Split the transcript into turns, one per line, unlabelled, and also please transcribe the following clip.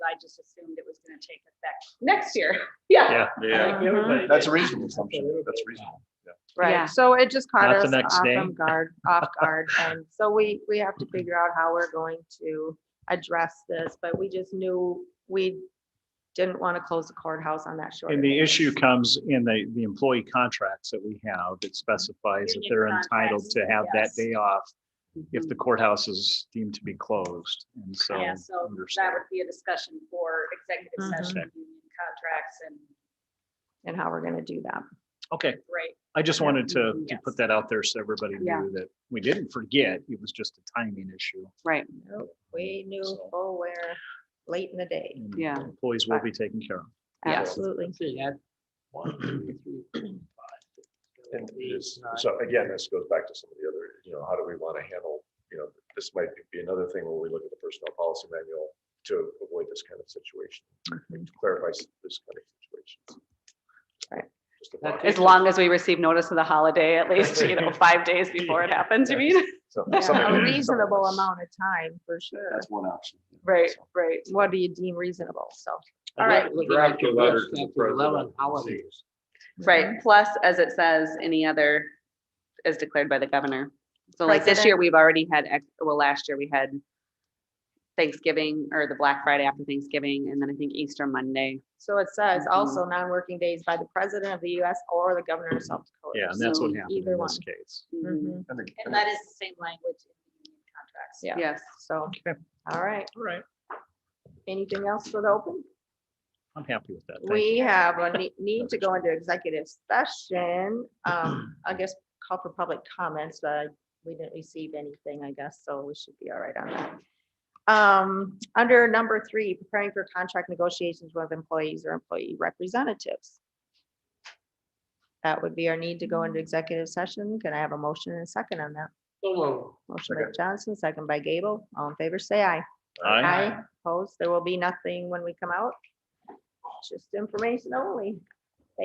I just assumed it was gonna take effect next year. Yeah.
Yeah,
Yeah.
Uh-huh.
yeah. everybody
That's
did.
a reasonable assumption. That's reasonable.
Yeah.
Right, so it just caught
Not the
us
next
off
day.
um, guard, off guard, and so we, we have to figure out how we're going to address this, but we just knew we didn't want to close the courthouse on that short.
And the issue comes in the, the employee contracts that we have that specifies that
Union
they're entitled
contracts,
to have that
yes.
day off if
Mhm.
the courthouse is deemed to be closed, and so.
Yeah, so that
understand.
would be a discussion for executive
Mm-hmm.
Mhm.
session, union contracts and
And how we're gonna do that.
Okay,
great.
I just
Yeah.
wanted to, to
Yes.
put that out there so everybody
Yeah.
knew that we didn't forget, it was just a timing issue.
Right,
Nope, We knew
So-
full where, late in the day.
and
Yeah.
Employees will be taken care of.
Absolutely.
And this- So again, this goes back to some of the other, you know, how do we want to handle, you know, this might be another thing when we look at the personnel policy manual to avoid this kind of situation, like, to clarify s- this kind of situation.
Right.
Just a thought.
as long as we receive notice of the holiday, at least, you know, five days before it happens, you mean?
So-
Yeah,
something-
A
something
reasonable
that's-
amount of time, for sure.
That's one option.
Right, right.
What do you deem reasonable? So,
All right.
Draft a letter to the president.
Right, plus, as it says, any other as declared by the governor. So like this year,
President.
we've already had, ex- well, last year we had Thanksgiving or the Black Friday after Thanksgiving, and then I think Easter Monday.
so it says also non-working days by the president of the US or the governor of South Dakota.
Yeah, and that's what
So
happened
Either
in
one.
this case.
Mhm.
Mm-hmm.
Mhm.
And the-
And that is the same language in the union contracts.
Yeah.
Yes.
So,
Okay.
all right.
All right,
Anything else for the open?
I'm happy with that. Thank you.
We have a ne- need to go into executive session. Um, I guess call for public comments, but we didn't receive anything, I guess, so we should be all right on that. Um, under number three, preparing for contract negotiations with employees or employee representatives. That would be our need to go into executive session. Can I have a motion and a second on that? Motion by
Second.
Johnson, second by Gable. All in favor, say aye.
Aye.
Opposed, there will be nothing when we come out. Just information only.